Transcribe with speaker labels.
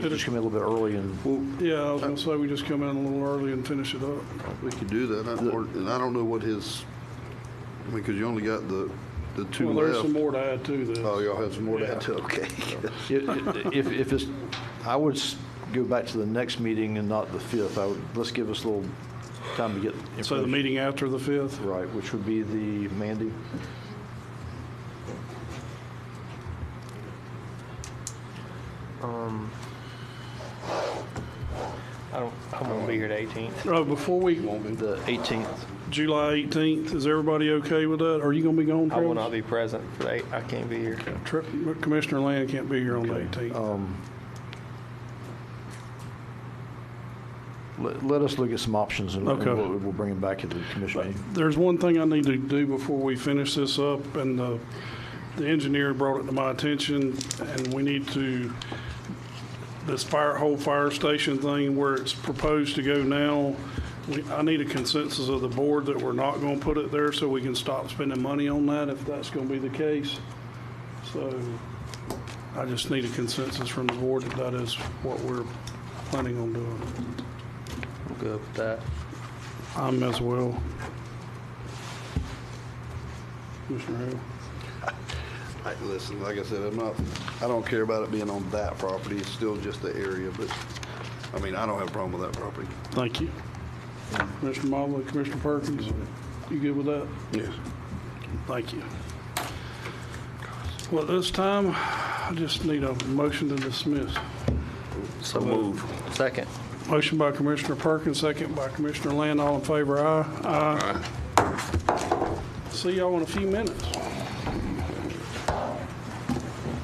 Speaker 1: We Just come in a little bit early and
Speaker 2: Well,
Speaker 3: Yeah, I was gonna say, we just come in a little early and finish it up.
Speaker 2: we could do that, I- or- and I don't know what his, I mean, because you only got the, the two
Speaker 3: Well, there's some
Speaker 2: left.
Speaker 3: more to add to this.
Speaker 2: Oh, y'all have some more to add to, okay.
Speaker 1: i- if, if it's, I would s- go back to the next meeting and not the 5th. I would, let's give us a little time to get
Speaker 3: So the
Speaker 1: information
Speaker 3: meeting after the 5th?
Speaker 1: right, which would be the Mandy.
Speaker 4: I don't, I won't be here the 18th.
Speaker 3: Oh, before we,
Speaker 1: The 18th.
Speaker 3: July 18th, is everybody okay with that? Are you gonna be gone,
Speaker 4: I will not
Speaker 3: Travis?
Speaker 4: be present for the, eight- I can't be here.
Speaker 3: Tri- Commissioner Land can't be here on the 18th.
Speaker 1: Let, let us look at some options and and
Speaker 3: Okay.
Speaker 1: we'll, we'll bring them back at the commission meeting.
Speaker 3: There's one thing I need to do before we finish this up, and uh, the engineer brought it to my attention, and we need to, this fire, whole fire station thing where it's proposed to go now, we- I need a consensus of the board that we're not going to put it there so we can stop spending money on that if that's going to be the case. So I just need a consensus from the board that that is what we're planning on doing.
Speaker 4: I'm good with that.
Speaker 3: I'm as well. Commissioner Hale?
Speaker 2: I- Listen, like I said, I'm not, I don't care about it being on that property, it's still just the area, but, I mean, I don't have a problem with that property.
Speaker 3: Thank you. Commissioner Mobley, Commissioner Perkins, you good with that?
Speaker 2: Yes.
Speaker 3: Thank you. Well, at this time, I just need a motion to dismiss.
Speaker 4: So move. Second.
Speaker 3: Motion by Commissioner Perkins, second by Commissioner Land. All in favor, aye. Aye. See y'all in a few minutes.